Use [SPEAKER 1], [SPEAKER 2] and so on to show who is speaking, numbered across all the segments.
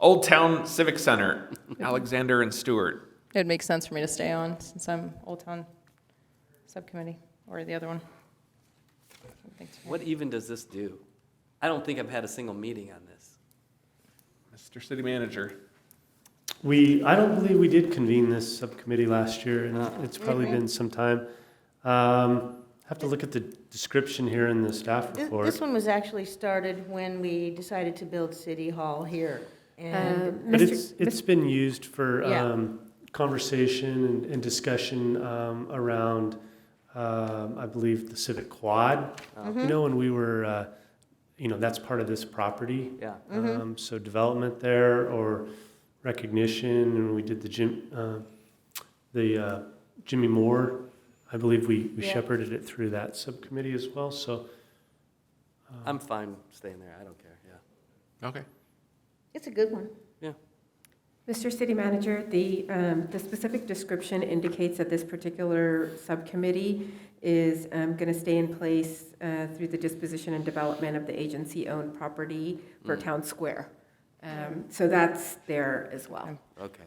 [SPEAKER 1] Old Town Civic Center, Alexander and Stewart.
[SPEAKER 2] It'd make sense for me to stay on since I'm Old Town Subcommittee or the other one. Thanks.
[SPEAKER 3] What even does this do? I don't think I've had a single meeting on this.
[SPEAKER 1] Mr. City Manager.
[SPEAKER 4] We, I don't believe we did convene this subcommittee last year, and uh, it's probably
[SPEAKER 2] Mhm.
[SPEAKER 4] been some time. Um, Have to look at the description here in the staff
[SPEAKER 5] This- This
[SPEAKER 4] report.
[SPEAKER 5] one was actually started when we decided to build City Hall here. And
[SPEAKER 4] But it's, it's been used for
[SPEAKER 5] Yeah.
[SPEAKER 4] um, conversation and- and discussion um, around, um, I believe, the Civic Quad.
[SPEAKER 5] Mm-hmm.
[SPEAKER 4] You know, when we were, uh, you know, that's part of this property.
[SPEAKER 3] Yeah.
[SPEAKER 4] Um, so development there or recognition, and we did the Jim, uh, the uh, Jimmy Moore. I believe we, we
[SPEAKER 5] Yeah.
[SPEAKER 4] shepherded it through that subcommittee as well. So
[SPEAKER 3] I'm fine staying there. I don't care. Yeah.
[SPEAKER 1] Okay.
[SPEAKER 5] it's a good one.
[SPEAKER 6] Mr. City Manager, the, um, the specific description indicates that this particular subcommittee is going to stay in place uh, through the disposition and development of the agency-owned property for Town Square. Um, So that's there as well.
[SPEAKER 3] Okay.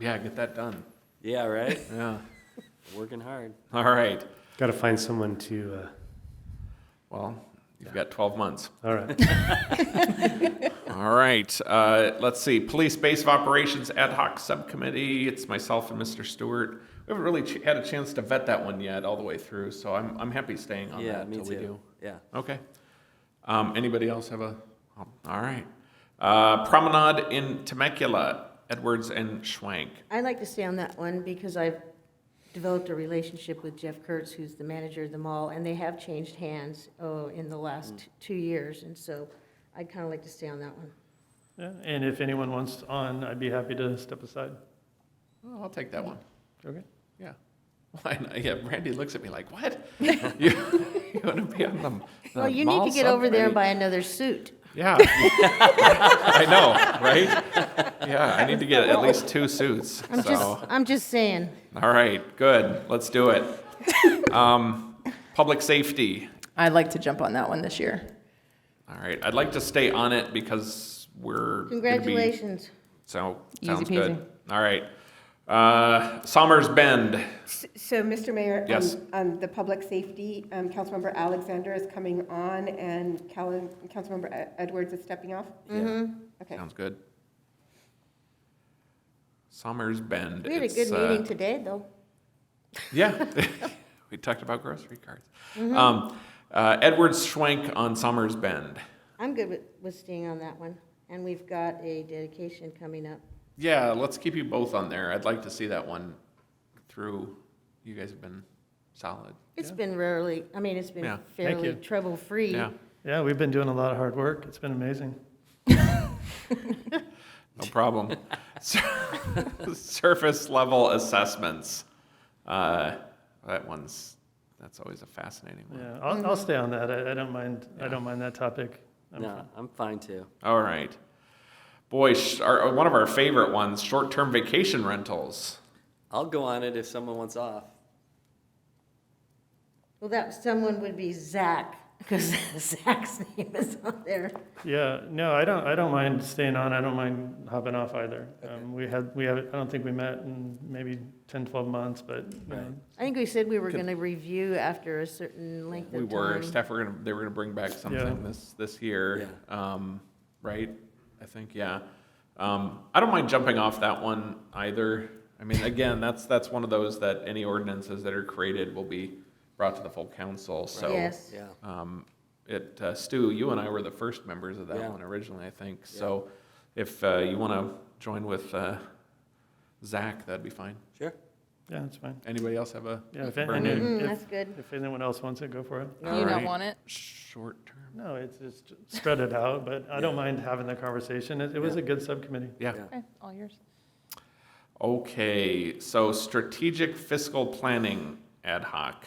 [SPEAKER 1] Yeah, get that done.
[SPEAKER 3] Yeah, right?
[SPEAKER 1] Yeah.
[SPEAKER 3] Working hard.
[SPEAKER 1] All right.
[SPEAKER 4] got to find someone to.
[SPEAKER 1] Well, you've got 12 months.
[SPEAKER 4] Uh, all right.
[SPEAKER 1] All right. Uh, let's see. Police Base of Operations Ad Hoc Subcommittee. It's myself and Mr. Stewart. We haven't really ch- had a chance to vet that one yet all the way through, so I'm, I'm happy staying on
[SPEAKER 3] Yeah,
[SPEAKER 1] that
[SPEAKER 3] me
[SPEAKER 1] until we do.
[SPEAKER 3] too. Yeah.
[SPEAKER 1] Okay. Um, anybody else have a? oh, All right. Uh, Promenade in Temecula, Edwards and Schwank.
[SPEAKER 5] I'd like to stay on that one because I've developed a relationship with Jeff Kurtz, who's the manager of the mall, and they have changed hands, oh, in the
[SPEAKER 1] Mm.
[SPEAKER 5] last two years. And so I'd kind of like to stay on that one.
[SPEAKER 7] Yeah, and if anyone wants on, I'd be happy to step aside.
[SPEAKER 1] Oh, I'll take that one.
[SPEAKER 7] Okay.
[SPEAKER 1] Yeah. Why not? Yeah, Randy looks at me like, what? you, you want to be on them?
[SPEAKER 5] Well, you need to get over there and buy another suit.
[SPEAKER 1] Yeah. I know, right? Yeah, I need to get at least two suits.
[SPEAKER 5] I'm
[SPEAKER 1] so.
[SPEAKER 5] just, I'm just saying.
[SPEAKER 1] All right, good. Let's do it. Um, public safety.
[SPEAKER 2] I'd like to jump on that one this year.
[SPEAKER 1] All right, I'd like to stay on it because we're gonna be-
[SPEAKER 5] Congratulations.
[SPEAKER 1] So
[SPEAKER 2] Easy
[SPEAKER 1] sounds
[SPEAKER 2] peasy.
[SPEAKER 1] good. All right. Uh, Somers Bend.
[SPEAKER 6] S- So, Mr. Mayor?
[SPEAKER 1] Yes.
[SPEAKER 6] on- On the public safety, um, Councilmember Alexander is coming on, and Cal- Councilmember Ed- Edwards is stepping off?
[SPEAKER 3] Yeah.
[SPEAKER 6] Okay.
[SPEAKER 1] Sounds good. Somers Bend.
[SPEAKER 5] We had a
[SPEAKER 1] It's,
[SPEAKER 5] good
[SPEAKER 1] uh,
[SPEAKER 5] meeting today, though.
[SPEAKER 1] Yeah. we talked about grocery cards.
[SPEAKER 5] Mm-hmm.
[SPEAKER 1] Um, uh, Edward Schwenk on Somers Bend.
[SPEAKER 5] I'm good with, with staying on that one. And we've got a dedication coming up.
[SPEAKER 1] Yeah, let's keep you both on there. I'd like to see that one through. You guys have been solid.
[SPEAKER 5] It's been rarely, I mean, it's
[SPEAKER 1] Yeah.
[SPEAKER 5] been
[SPEAKER 1] Thank
[SPEAKER 5] fairly
[SPEAKER 7] you.
[SPEAKER 5] trouble-free.
[SPEAKER 1] Yeah,
[SPEAKER 7] Yeah, we've been doing a lot of hard work. It's been amazing.
[SPEAKER 1] no problem. Sur- Surface level assessments. Uh, that one's, that's always a fascinating one.
[SPEAKER 7] Yeah, I'll, I'll stay on that. I, I don't mind, I don't mind that topic. I'm
[SPEAKER 3] No, I'm fine too.
[SPEAKER 1] All right. Boy, sh- our, uh, one of our favorite ones, short-term vacation rentals.
[SPEAKER 3] I'll go on it if someone wants off.
[SPEAKER 5] Well, that someone would be Zach, because Zach's name is on there.
[SPEAKER 7] Yeah, no, I don't, I don't mind staying on. I don't mind hopping off either. Um, we had, we have, I don't think we met in maybe 10, 12 months, but, you know,
[SPEAKER 3] Right.
[SPEAKER 5] I think we said we were going to review after a certain length
[SPEAKER 1] We
[SPEAKER 5] of
[SPEAKER 1] were,
[SPEAKER 5] time.
[SPEAKER 1] staff were gonna, they were gonna bring back something this, this year. Um, right? I think, yeah. Um, I don't mind jumping off that one either. I mean, again, that's, that's one of those that any ordinances that are created will be brought to the full council, so.
[SPEAKER 5] Yes.
[SPEAKER 3] Yeah.
[SPEAKER 1] Um, it, uh, Stu, you and I were the first members of
[SPEAKER 3] Yeah.
[SPEAKER 1] that one originally, I think, so if, uh, you wanna join with, uh, Zach, that'd be fine.
[SPEAKER 3] Sure.
[SPEAKER 7] yeah, it's fine.
[SPEAKER 1] Anybody else have a?
[SPEAKER 7] Yeah, if,
[SPEAKER 1] burn
[SPEAKER 7] and
[SPEAKER 1] in?
[SPEAKER 5] Mm,
[SPEAKER 7] if,
[SPEAKER 5] that's good.
[SPEAKER 7] if anyone else wants it, go for it.
[SPEAKER 2] Do you not
[SPEAKER 1] Alright.
[SPEAKER 2] want it?
[SPEAKER 1] Short term,
[SPEAKER 7] No, it's just spread it out, but I don't mind having the conversation. It, it was a good subcommittee.
[SPEAKER 1] yeah.
[SPEAKER 3] Yeah.
[SPEAKER 2] Okay, all yours.
[SPEAKER 1] Okay, so strategic fiscal planning ad hoc.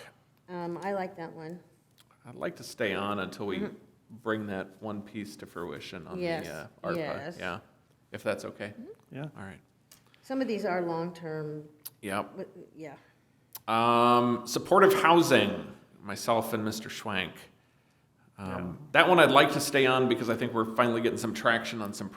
[SPEAKER 5] Um, I like that one.
[SPEAKER 1] I'd like to stay on until we bring that one piece to fruition on
[SPEAKER 5] Yes,
[SPEAKER 1] the uh, ARPA.
[SPEAKER 5] yes.
[SPEAKER 1] Yeah, if that's okay.
[SPEAKER 7] Yeah.
[SPEAKER 1] All right.
[SPEAKER 5] Some of these are long-term,
[SPEAKER 1] Yep.
[SPEAKER 5] but, yeah.
[SPEAKER 1] Um, supportive housing. Myself and Mr. Schwank. Um, That one I'd like to stay on because I think we're finally getting some traction on some